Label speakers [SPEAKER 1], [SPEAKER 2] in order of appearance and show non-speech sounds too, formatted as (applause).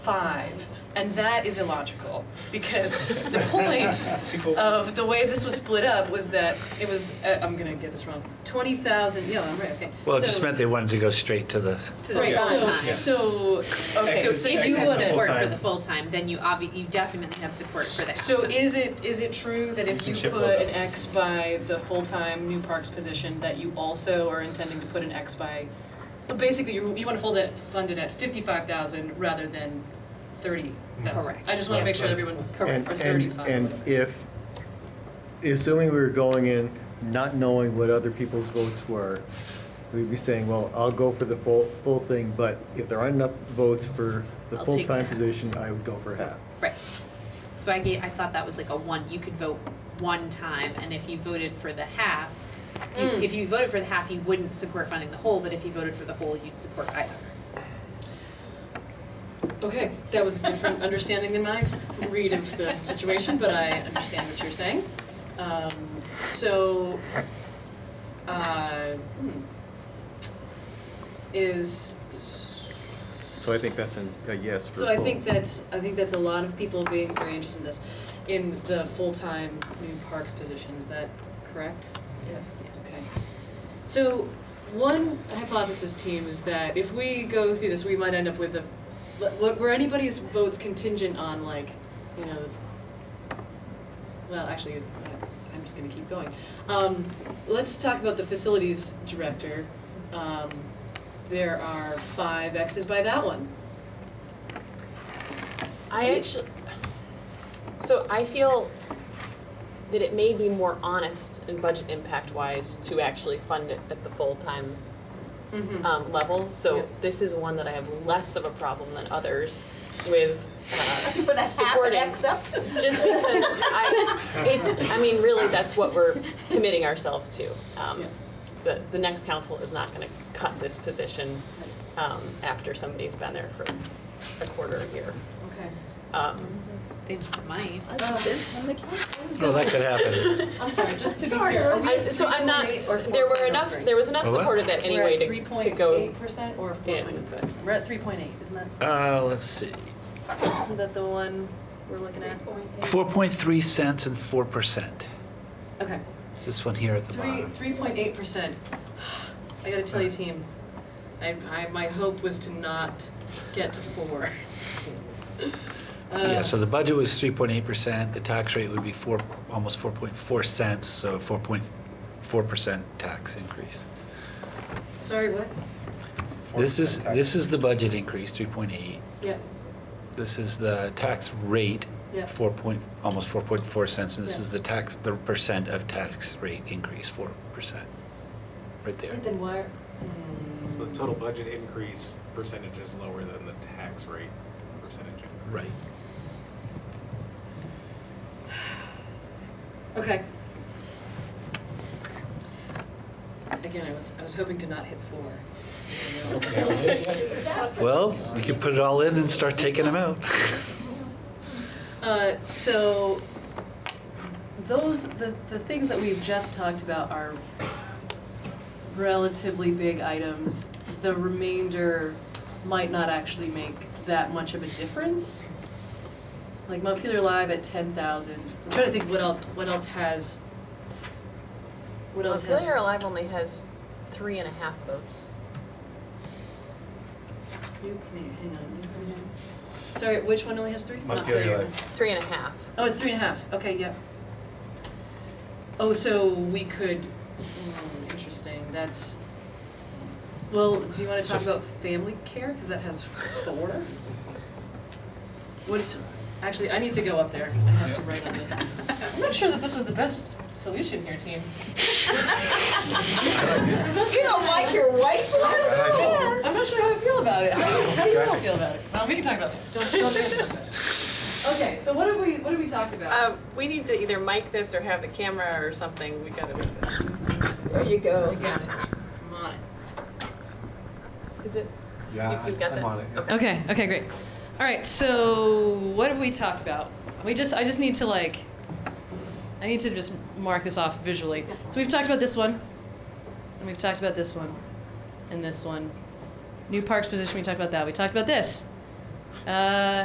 [SPEAKER 1] five, and that is illogical because the point of the way this was split up was that it was uh, I'm gonna get this wrong twenty thousand yeah I'm right okay
[SPEAKER 2] Well, it
[SPEAKER 1] So-
[SPEAKER 2] just meant they wanted to go straight to the,
[SPEAKER 1] to the
[SPEAKER 3] Right,
[SPEAKER 1] so
[SPEAKER 3] full-time.
[SPEAKER 1] so okay
[SPEAKER 3] So
[SPEAKER 1] so
[SPEAKER 3] if
[SPEAKER 1] if
[SPEAKER 3] you
[SPEAKER 1] you
[SPEAKER 3] have
[SPEAKER 1] would
[SPEAKER 3] support
[SPEAKER 2] full-time.
[SPEAKER 3] for the full-time, then you obvi, you definitely have support for the
[SPEAKER 1] so
[SPEAKER 4] uh,
[SPEAKER 3] half-time.
[SPEAKER 1] is it is it true that if
[SPEAKER 2] can
[SPEAKER 1] you
[SPEAKER 2] shift
[SPEAKER 1] put
[SPEAKER 2] those up.
[SPEAKER 1] an X by the full time new parks position that you also are intending to put an X by but basically you you want to fold it fund it at fifty five thousand rather than thirty thousand
[SPEAKER 3] Correct.
[SPEAKER 1] I just want to make sure everyone's
[SPEAKER 4] And,
[SPEAKER 1] or thirty
[SPEAKER 4] and,
[SPEAKER 1] five
[SPEAKER 4] and if, assuming we were going in not knowing what other people's votes were, we'd be saying, well, I'll go for the full, full thing, but if there aren't enough votes for the
[SPEAKER 3] I'll take
[SPEAKER 4] full-time
[SPEAKER 3] half.
[SPEAKER 4] position, I would go for half.
[SPEAKER 3] Right. So I gave, I thought that was like a one, you could vote one time, and if you voted for the half, you-
[SPEAKER 1] Mm.
[SPEAKER 3] if you voted for the half, you wouldn't support funding the whole, but if you voted for the whole, you'd support either.
[SPEAKER 1] Okay, that was a different (laughs) understanding than my read of the situation, but I understand what you're saying. Um, so, uh, hmm. is,
[SPEAKER 4] So I think that's a yes
[SPEAKER 1] so I think that's, I think that's a lot of people being very interested in this, in the full-time new parks position, is that correct? Yes. Okay. So, one hypothesis team is that if we go through this, we might end up with a, what, were anybody's votes contingent on like, you know, well, actually, I- I'm just gonna keep going. Um, let's talk about the facilities director. Um, there are five X's by that one.
[SPEAKER 5] I actually, so I feel that it may be more honest and budget impact wise to actually fund it at the full-time
[SPEAKER 1] Mm-hmm.
[SPEAKER 5] um, level.
[SPEAKER 1] Yeah.
[SPEAKER 5] So this is one that I have less of a problem than others with, uh,
[SPEAKER 6] Put a half an
[SPEAKER 5] Supporting.
[SPEAKER 6] X up.
[SPEAKER 5] just because I, it's, I mean, really, that's what we're committing ourselves to. Um,
[SPEAKER 1] Yeah.
[SPEAKER 5] The, the next council is not gonna cut this position um, after somebody's been there for a quarter of a year.
[SPEAKER 1] Okay.
[SPEAKER 5] Um,
[SPEAKER 3] They might.
[SPEAKER 2] oh, that could
[SPEAKER 1] (laughs)
[SPEAKER 2] happen.
[SPEAKER 1] I'm sorry, just to be
[SPEAKER 6] Sorry,
[SPEAKER 1] clear. are we
[SPEAKER 5] I, so I'm not, there were enough, there was enough
[SPEAKER 2] A what?
[SPEAKER 5] support of that anyway to, to go.
[SPEAKER 1] percent or four
[SPEAKER 5] Yeah.
[SPEAKER 1] point five percent? We're at three point eight, isn't that,
[SPEAKER 2] Uh, let's see,
[SPEAKER 1] isn't that the one we're looking at?
[SPEAKER 2] 4.3 cents and 4%.
[SPEAKER 1] Okay.
[SPEAKER 2] It's this one here at the
[SPEAKER 1] Three,
[SPEAKER 2] bottom.
[SPEAKER 1] three point eight percent. I gotta tell you, team, I, I, my hope was to not get to four.
[SPEAKER 2] Yeah,
[SPEAKER 1] Uh,
[SPEAKER 2] so the budget was 3.8%, the tax rate would be four, almost 4.4 cents, so 4.4% tax increase.
[SPEAKER 1] Sorry, what?
[SPEAKER 2] This is, this is the budget increase, 3.8.
[SPEAKER 1] Yeah,
[SPEAKER 2] This is the tax rate,
[SPEAKER 1] Yeah.
[SPEAKER 2] 4 point, almost 4.4 cents, and this
[SPEAKER 1] Yeah.
[SPEAKER 2] is the tax, the percent of tax rate increase, 4%. Right there.
[SPEAKER 1] then why?
[SPEAKER 7] So the total budget increase percentage is lower than the tax rate percentage increase.
[SPEAKER 2] Right.
[SPEAKER 1] Okay. Again, I was, I was hoping to not hit four.
[SPEAKER 5] (laughs)
[SPEAKER 2] Well, we could put it all in and start taking them out.
[SPEAKER 1] Uh, so those the, the things that we've just talked about are relatively big items. The remainder might not actually make that much of a difference. Like Montpelier Live at ten thousand. I'm trying to think what else what else has what else has
[SPEAKER 5] Montpelier Alive only has three and a half votes.
[SPEAKER 1] New- hang on, new version. Sorry, which one only has three? Ah, Not
[SPEAKER 7] Montpelier
[SPEAKER 1] clear.
[SPEAKER 7] Live.
[SPEAKER 5] Three and a half.
[SPEAKER 1] Oh, it's three and a half, okay, yep. Oh, so we could, hmm, interesting, that's, well, do you wanna talk
[SPEAKER 2] So-
[SPEAKER 1] about family care, cause that has four? What, actually, I need to go up there, I have to write on this. I'm not sure that this was the best solution here, team.
[SPEAKER 6] You don't like your whiteboard?
[SPEAKER 1] I'm not sure how I feel about it, how do you, how do you all feel about it? Well, we can talk about it, don't, don't talk about it. Okay, so what have we, what have we talked about?
[SPEAKER 5] Uh, we need to either mic this or have the camera or something, we gotta make this.
[SPEAKER 6] There you go.
[SPEAKER 1] Got it. I'm on it.
[SPEAKER 5] Is it?
[SPEAKER 7] Yeah,
[SPEAKER 5] You- you've got
[SPEAKER 7] I'm
[SPEAKER 5] that?
[SPEAKER 7] on it, yeah.
[SPEAKER 5] Okay.
[SPEAKER 1] Okay, okay, great. All right, so what have we talked about? We just, I just need to like, I need to just mark this off visually. So we've talked about this one, and we've talked about this one, and this one. New parks position, we talked about that. We talked about this. Uh,